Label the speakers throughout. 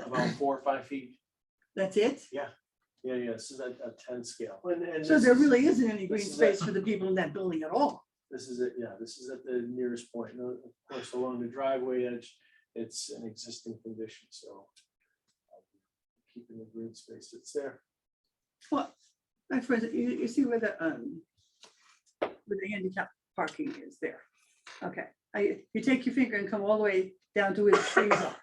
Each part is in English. Speaker 1: about four or five feet.
Speaker 2: That's it?
Speaker 1: Yeah, yeah, this is a, a ten scale. And, and
Speaker 2: So
Speaker 1: this
Speaker 2: there
Speaker 1: is-
Speaker 2: really isn't any green
Speaker 1: this is
Speaker 2: space for the people in that building at all.
Speaker 1: This is it, yeah, this is at the nearest point. And Of course, along the driveway edge, it's an existing condition, so. uh, Keeping the green space that's there.
Speaker 2: Well, my friend, you, you see where the, um, where the handicap parking is there. Okay, I, you take your finger and come all the way down to where the trees are,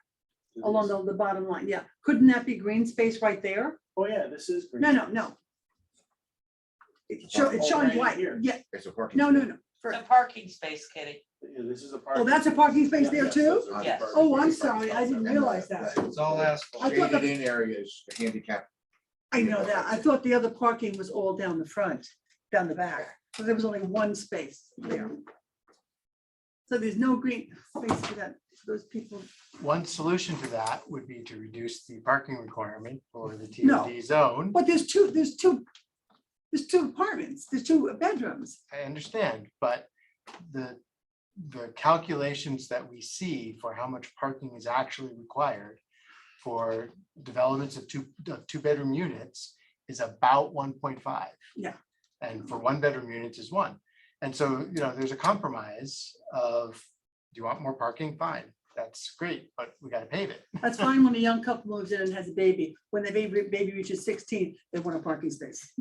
Speaker 1: It
Speaker 2: along
Speaker 1: is-
Speaker 2: the, the bottom line, yeah. Couldn't that be green space right there?
Speaker 1: Oh, yeah, this is. green
Speaker 2: No, no,
Speaker 1: space.
Speaker 2: no. It's show- it's
Speaker 1: Oh,
Speaker 2: showing
Speaker 1: right
Speaker 2: white,
Speaker 1: here.
Speaker 2: yeah,
Speaker 3: It's a parking.
Speaker 2: no, no,
Speaker 3: space.
Speaker 2: no.
Speaker 4: It's a
Speaker 2: First-
Speaker 4: parking space, Kitty.
Speaker 1: Yeah, this is a parking.
Speaker 2: Oh, that's a parking space
Speaker 1: Yeah,
Speaker 2: there
Speaker 1: yes,
Speaker 2: too?
Speaker 1: those are
Speaker 4: Yes.
Speaker 1: parking
Speaker 2: Oh, I'm
Speaker 1: spaces.
Speaker 2: sorry, I didn't realize that.
Speaker 5: It's all asphalt.
Speaker 2: I thought
Speaker 3: Shaded in areas, handicap.
Speaker 2: I know that. I thought the other parking was all down the front, down the back, so there was only one space there. So there's no green space for that, for those people.
Speaker 6: One solution to that would be to reduce the parking requirement for the
Speaker 2: No.
Speaker 6: TOD zone.
Speaker 2: But there's two, there's two, there's two apartments, there's two bedrooms.
Speaker 6: I understand, but the, the calculations that we see for how much parking is actually required for developments of two, of two-bedroom units is about one point five.
Speaker 2: Yeah.
Speaker 6: And for one-bedroom units is one. And so, you know, there's a compromise of, do you want more parking? Fine, that's great, but we gotta pave it.
Speaker 2: That's fine when a young couple moves in and has a baby. When the baby, baby reaches sixteen, they want a parking space.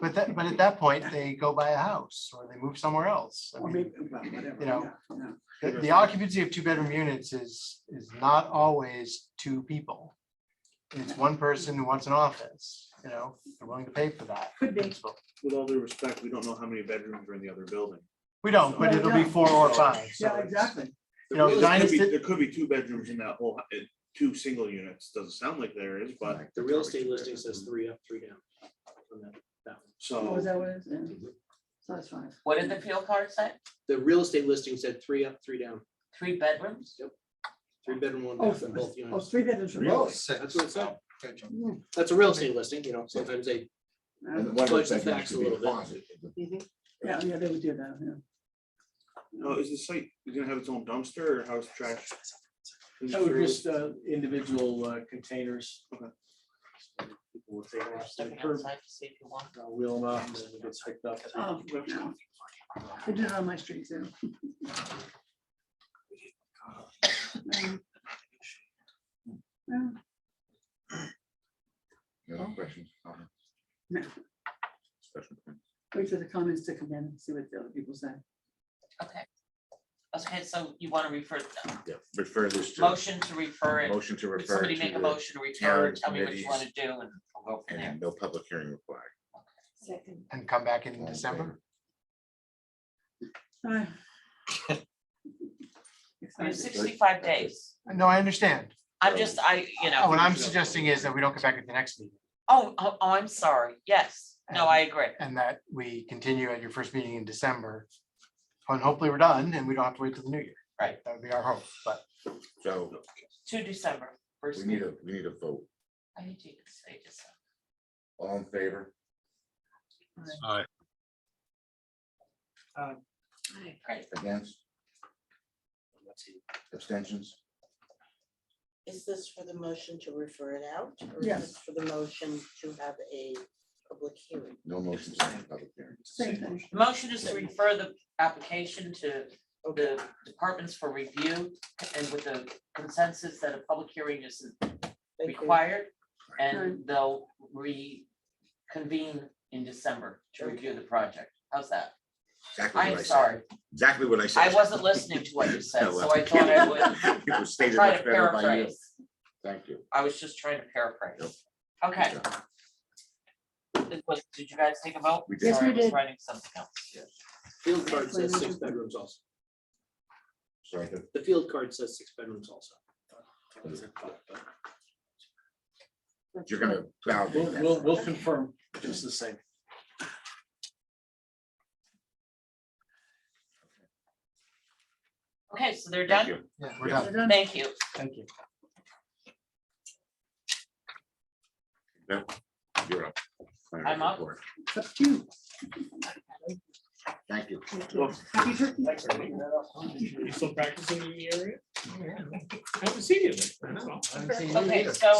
Speaker 6: But that, but at that point, they go buy a house or they move somewhere else. I
Speaker 2: Or
Speaker 6: mean,
Speaker 2: maybe, well, whatever.
Speaker 6: You know.
Speaker 2: yeah, yeah.
Speaker 6: The, the occupancy of two bedroom units is, is not always two people. It's one person who wants an office, you know, they're willing to pay for that.
Speaker 2: Could be.
Speaker 6: principle.
Speaker 7: with all due respect, we don't know how many bedrooms are in the other building.
Speaker 6: We don't, but
Speaker 2: No,
Speaker 6: it'll be
Speaker 2: no.
Speaker 6: four or five. so
Speaker 2: Yeah,
Speaker 6: it's-
Speaker 2: exactly.
Speaker 6: You know,
Speaker 7: There really could be-
Speaker 6: dynasty-
Speaker 7: There could be two bedrooms in that whole, hu- uh, two single units, doesn't sound like there is, but
Speaker 1: The real estate listing says three up, three down. on that- that one.
Speaker 2: Oh, is
Speaker 7: so.
Speaker 2: that what it is? Yeah. So that's fine.
Speaker 4: What did the field card say?
Speaker 1: The real estate listing said three up, three down,
Speaker 4: Three bedrooms?
Speaker 1: three bedroom, one
Speaker 2: Oh,
Speaker 1: bath in both
Speaker 2: oh,
Speaker 1: units.
Speaker 2: three bedrooms. for both.
Speaker 1: That's what it said.
Speaker 2: Yeah.
Speaker 1: That's a real estate listing, you know, sometimes they
Speaker 3: And the
Speaker 2: Um,
Speaker 3: one
Speaker 1: Fudge the
Speaker 3: that's actually
Speaker 1: facts a
Speaker 3: should be
Speaker 1: little bit.
Speaker 3: closet.
Speaker 2: Yeah, yeah, they would do that, yeah.
Speaker 7: Now, oh, is the site, is gonna have its own dumpster or how's trash?
Speaker 1: No, just uh, individual uh, containers. People will take them
Speaker 4: Or
Speaker 1: off the
Speaker 4: Stepping
Speaker 1: curb,
Speaker 4: outside to see if you want.
Speaker 1: uh, Wheel them out and then it gets hooked up.
Speaker 2: Oh, no. I did it on my street too. Um, well,
Speaker 3: No other questions? comments?
Speaker 2: Oh. No.
Speaker 3: Special permit.
Speaker 2: Wait for the comments to come in and see what the other people say.
Speaker 4: Okay. Okay, so you want to refer,
Speaker 3: Yeah, Refer this to.
Speaker 4: motion to refer it.
Speaker 3: Motion to
Speaker 4: Would
Speaker 3: refer.
Speaker 4: somebody
Speaker 3: to
Speaker 4: make a
Speaker 3: the-
Speaker 4: motion to refer,
Speaker 3: town
Speaker 4: tell me what you want to
Speaker 3: committees.
Speaker 4: do and we'll go from there.
Speaker 3: And no public hearing required.
Speaker 8: Second.
Speaker 6: And come back
Speaker 3: All
Speaker 6: in
Speaker 3: in
Speaker 6: December.
Speaker 3: favor?
Speaker 2: Ah.
Speaker 4: We have
Speaker 2: Excited.
Speaker 4: sixty-five days.
Speaker 6: No, I understand.
Speaker 4: I'm just, I, you know,
Speaker 6: What I'm suggesting is that we don't come back at the next meeting
Speaker 4: oh, oh, oh, I'm sorry. Yes. No, I agree.
Speaker 6: and that we continue at your first meeting in December. And hopefully we're done and we don't have to wait till the new year.
Speaker 4: Right.
Speaker 6: That would be our hope, but
Speaker 3: So
Speaker 4: To December.
Speaker 3: we
Speaker 4: first
Speaker 3: need a,
Speaker 4: meeting.
Speaker 3: we need a vote.
Speaker 4: I need you to say December.
Speaker 3: All in favor?
Speaker 4: Great.
Speaker 3: Against? Abstentions?
Speaker 8: Is this for the motion to refer it out? or is
Speaker 2: Yes.
Speaker 8: this For the motion to have a public hearing?
Speaker 3: No motions, no public hearing.
Speaker 2: Same thing.
Speaker 4: The motion is to refer the application to the departments for review and with the consensus that a public hearing is
Speaker 8: Thank you.
Speaker 4: required. And they'll reconvene in December to review the project. How's that?
Speaker 3: Exactly what I
Speaker 4: I'm
Speaker 3: said.
Speaker 4: sorry.
Speaker 3: Exactly what I said.
Speaker 4: I wasn't listening to what you said,
Speaker 3: No,
Speaker 4: so
Speaker 3: well,
Speaker 4: I thought I would
Speaker 3: It was stated
Speaker 4: try to
Speaker 3: much better by you.
Speaker 4: paraphrase.
Speaker 3: Thank you.
Speaker 4: I was just trying to
Speaker 3: Yep.
Speaker 4: paraphrase. Okay,
Speaker 3: Good job.
Speaker 4: it was- did you guys take a vote?
Speaker 3: We did.
Speaker 2: Yes,
Speaker 4: Sorry,
Speaker 2: we
Speaker 4: I was
Speaker 2: did.
Speaker 4: Writing something else.
Speaker 1: Field card says six bedrooms also.
Speaker 3: Sorry.
Speaker 1: The field card says six bedrooms also.
Speaker 3: You're gonna validate
Speaker 1: We'll,
Speaker 3: that.
Speaker 1: we'll, we'll confirm just the same.
Speaker 4: Okay, so they're
Speaker 3: Thank
Speaker 4: done.
Speaker 3: you.
Speaker 6: yeah, we're
Speaker 3: Yeah.
Speaker 6: done.
Speaker 4: Thank you.
Speaker 6: Thank you.
Speaker 3: You're up. Final
Speaker 4: I'm up.
Speaker 3: report.
Speaker 2: It's up to you.
Speaker 3: Thank you.
Speaker 2: Happy turkey.
Speaker 7: You still practicing in the area?
Speaker 1: I haven't seen you. lately, that's all.
Speaker 6: I haven't seen you
Speaker 4: Okay,
Speaker 6: either.
Speaker 4: so